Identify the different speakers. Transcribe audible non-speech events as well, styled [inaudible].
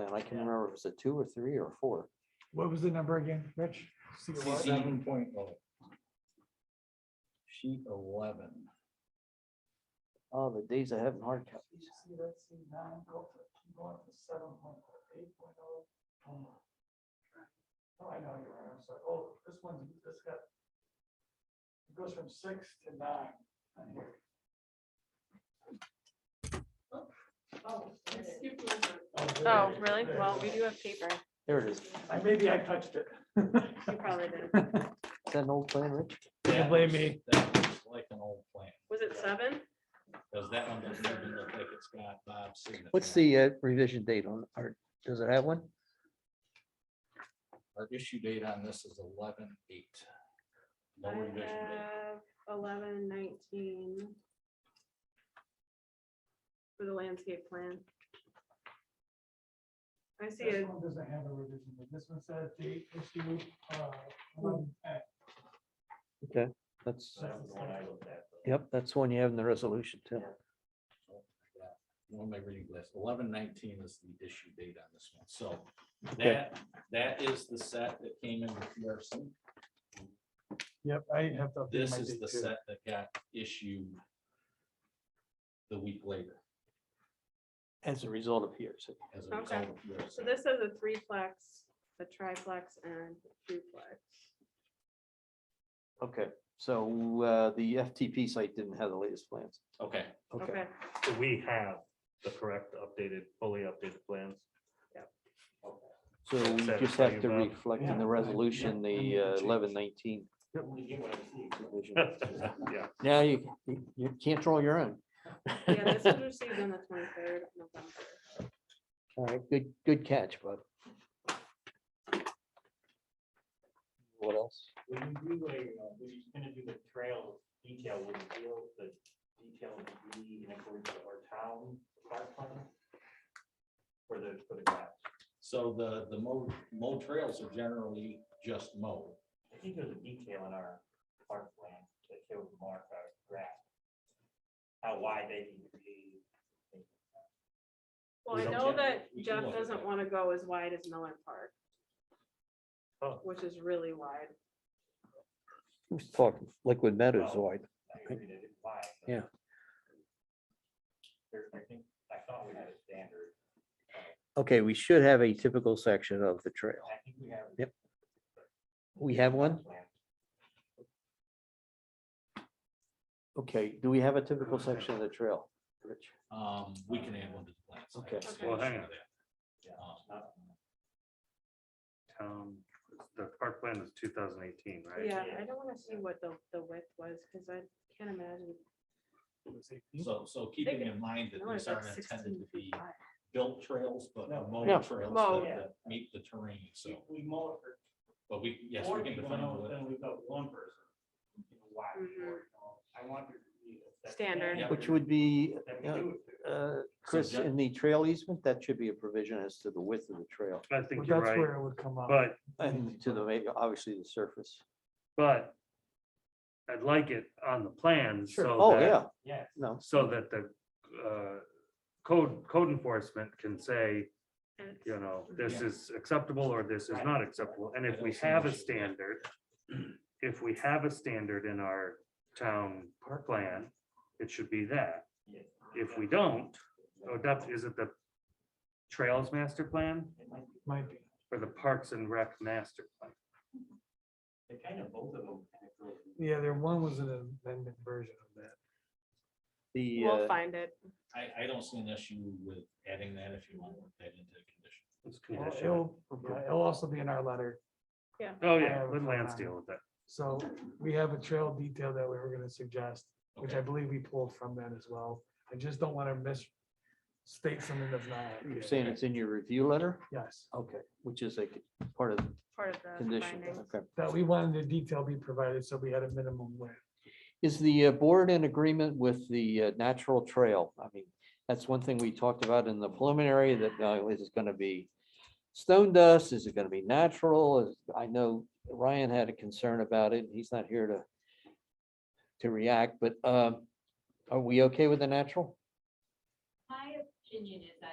Speaker 1: and I can remember if it's a two or three or four.
Speaker 2: What was the number again, Rich? See what?
Speaker 3: Seven point oh. Sheet eleven.
Speaker 1: Oh, the days of having hard copies.
Speaker 2: Oh, I know you're right. I was like, oh, this one's, this got. It goes from six to nine. on here. Oh,
Speaker 4: Oh,
Speaker 2: there it is.
Speaker 4: really?
Speaker 2: Oh, There it
Speaker 4: Well,
Speaker 2: is.
Speaker 4: we do have paper.
Speaker 1: There it is. Is
Speaker 2: I- Maybe I touched
Speaker 4: [laughs]
Speaker 2: it.
Speaker 4: You probably did.
Speaker 1: that an old plan, Rich?
Speaker 3: That
Speaker 2: blame
Speaker 3: looks-
Speaker 2: me.
Speaker 3: That looks like an old plan,
Speaker 4: Was it seven?
Speaker 3: because that one doesn't even look like it's got Bob's signature.
Speaker 1: What's the uh, revision date on, or does it have one?
Speaker 3: Our issue date on this is eleven eight. No
Speaker 4: I
Speaker 3: revision date.
Speaker 4: have eleven nineteen. For the landscape plan. I see
Speaker 2: This
Speaker 4: it.
Speaker 2: one doesn't have a revision, but this one says date issue, uh, one X.
Speaker 1: Okay, that's,
Speaker 2: That's the one I looked at.
Speaker 1: yep, that's one you have in the resolution too.
Speaker 3: Oh, What am I reading this? Eleven nineteen is the issue date on this one, so
Speaker 1: Okay.
Speaker 3: that, that is the set that came in with PRC.
Speaker 2: Yep, I have to. update
Speaker 3: This
Speaker 2: my
Speaker 3: is
Speaker 2: date
Speaker 3: the
Speaker 2: too.
Speaker 3: set that got issued the week later
Speaker 1: As a result of here, so.
Speaker 3: as a result
Speaker 4: Okay.
Speaker 3: of PRC.
Speaker 4: So this is a threeplex, a triplex and a duplex.
Speaker 1: Okay, so uh, the FTP site didn't have the latest plans.
Speaker 3: Okay,
Speaker 4: Okay,
Speaker 5: So we have the correct updated, fully updated plans. [laughs]
Speaker 1: So we
Speaker 5: Satisfy
Speaker 1: just have
Speaker 5: you,
Speaker 1: to
Speaker 5: Bob?
Speaker 1: reflect
Speaker 2: Yeah,
Speaker 1: in
Speaker 2: I-
Speaker 1: the
Speaker 2: yeah,
Speaker 1: resolution,
Speaker 2: I made
Speaker 1: the uh,
Speaker 2: the change.
Speaker 1: eleven nineteen.
Speaker 5: Yeah,
Speaker 1: Now you, you can't draw your own.
Speaker 4: yeah, this was received on the twenty-third of November.
Speaker 1: All right, good, good catch, bud. What else?
Speaker 6: When you do a, uh, when you're gonna do the trail detail, would you feel the detail would be in accordance with our town park plan? For the, for the grass?
Speaker 3: so the, the mow, mow trails are generally just mowed.
Speaker 6: I think there's a detail in our park plan that shows mark our grass. How wide they need to be.
Speaker 4: Well,
Speaker 5: We
Speaker 4: I
Speaker 5: don't
Speaker 4: know
Speaker 3: get-
Speaker 4: that
Speaker 3: we can
Speaker 4: Jeff
Speaker 3: look at
Speaker 4: doesn't
Speaker 3: that.
Speaker 4: want to go as wide as Miller
Speaker 5: Oh.
Speaker 4: Park. Which is really wide.
Speaker 1: Who's talking liquid meadows
Speaker 6: Well-
Speaker 1: wide?
Speaker 6: I agree that it's wide. but
Speaker 1: Yeah.
Speaker 6: There, I think, I thought we had a standard,
Speaker 1: Okay, we should have a typical section of the trail.
Speaker 6: I think we have.
Speaker 1: Yep. We have one?
Speaker 6: Plan.
Speaker 1: Okay, do we have a typical section of the trail, Rich?
Speaker 3: Um, we can add one to the plans. I
Speaker 1: Okay.
Speaker 3: can
Speaker 4: Okay. Well,
Speaker 5: hang on.
Speaker 3: show that.
Speaker 6: Yeah,
Speaker 3: Um,
Speaker 6: it's not-
Speaker 5: town, the park plan is two thousand eighteen, right?
Speaker 4: Yeah,
Speaker 6: Yeah.
Speaker 4: I don't want to see what the, the width was because I can't imagine.
Speaker 3: So, so keeping in mind that
Speaker 4: I wanna
Speaker 3: these
Speaker 4: go
Speaker 3: aren't
Speaker 4: 16
Speaker 3: intended to be
Speaker 4: feet wide.
Speaker 3: built trails, but
Speaker 6: No.
Speaker 3: mowed
Speaker 1: Yeah.
Speaker 3: trails
Speaker 4: Mowed.
Speaker 3: that- that meet the terrain,
Speaker 6: We,
Speaker 3: so,
Speaker 6: we mow it for
Speaker 3: but we, yes, we
Speaker 6: Or
Speaker 3: can
Speaker 6: you
Speaker 3: define.
Speaker 6: know,
Speaker 3: what-
Speaker 6: Then we've got one person. you know, why we
Speaker 4: Mhm.
Speaker 6: work on it. I want there to be a set
Speaker 4: Standard.
Speaker 6: standard
Speaker 1: Which would be,
Speaker 6: that we
Speaker 1: uh,
Speaker 6: do it to.
Speaker 1: uh, Chris,
Speaker 3: Jeff-
Speaker 1: in the trail easement, that should be a provision as to the width of the trail
Speaker 5: I
Speaker 2: Well,
Speaker 5: think you're
Speaker 2: That's
Speaker 5: right,
Speaker 2: where uh, it would come up.
Speaker 5: but,
Speaker 1: and to the, ma- obviously, the surface.
Speaker 5: but I'd like it on the plan,
Speaker 1: Sure.
Speaker 5: so
Speaker 1: Oh,
Speaker 5: that-
Speaker 1: yeah,
Speaker 6: Yes,
Speaker 1: no,
Speaker 5: So that the, uh, code, code enforcement can say,
Speaker 4: And it's-
Speaker 5: you know, this
Speaker 3: Yeah.
Speaker 5: is acceptable or this is
Speaker 6: Right.
Speaker 5: not acceptable. And
Speaker 3: I
Speaker 5: if
Speaker 3: don't
Speaker 5: we
Speaker 3: see an
Speaker 5: have a
Speaker 3: issue with that.
Speaker 5: standard, [clears throat] if we have a standard in our town park plan, it should be that.
Speaker 6: yes.
Speaker 5: If we don't, oh, that's, is it the Trails Master Plan
Speaker 6: It might be-
Speaker 2: Might be.
Speaker 5: or the Parks and Rec Master Plan?
Speaker 6: They kind of both of them. kind of go.
Speaker 2: Yeah, there one was an amendment version of that.
Speaker 1: the,
Speaker 4: We'll
Speaker 1: uh,
Speaker 4: find it.
Speaker 3: I, I don't see an issue with adding that if you want to work that into the condition.
Speaker 5: It's
Speaker 2: Well,
Speaker 5: conditional.
Speaker 2: It'll, yeah, it'll also be in our letter.
Speaker 5: Oh,
Speaker 2: Yeah.
Speaker 5: yeah, let Lance deal with that.
Speaker 2: So we have a trail detail that we were gonna suggest, which I
Speaker 3: Okay.
Speaker 2: believe we pulled from that as well. I just don't wanna miss state something that's not.
Speaker 1: you're
Speaker 2: accurate.
Speaker 1: saying it's in your review letter?
Speaker 2: Yes,
Speaker 3: Oh.
Speaker 1: Okay, which is a c- part of the
Speaker 4: Part of the.
Speaker 1: condition,
Speaker 4: findings.
Speaker 1: okay.
Speaker 2: that we wanted the detail be provided, so we had a minimum width.
Speaker 1: Is the uh, board in agreement with the uh, natural trail? I mean, that's one thing we talked about in the preliminary that uh, is it going to be stone dust? Is it going to be natural? Is- I know Ryan had a concern about it. He's not here to to react, but um, are we okay with the natural?
Speaker 7: My opinion is I